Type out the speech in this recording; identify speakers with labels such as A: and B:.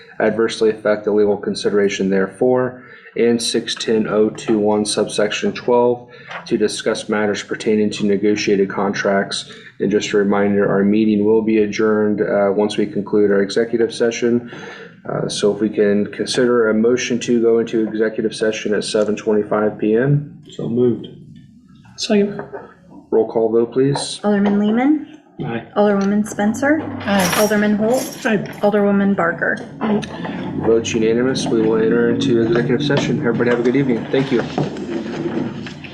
A: adversely affect the legal consideration therefore, and six ten oh two one subsection twelve to discuss matters pertaining to negotiated contracts. And just a reminder, our meeting will be adjourned, uh, once we conclude our executive session. Uh, so if we can consider a motion to go into executive session at seven twenty-five PM.
B: So moved.
C: Second.
A: Roll call vote, please.
D: Alderman Lehman,
B: Aye.
D: Alderwoman Spencer, Alderman Holt,
C: Aye.
D: Alderwoman Barker.
A: Votes unanimous, we will enter into executive session. Everybody have a good evening. Thank you.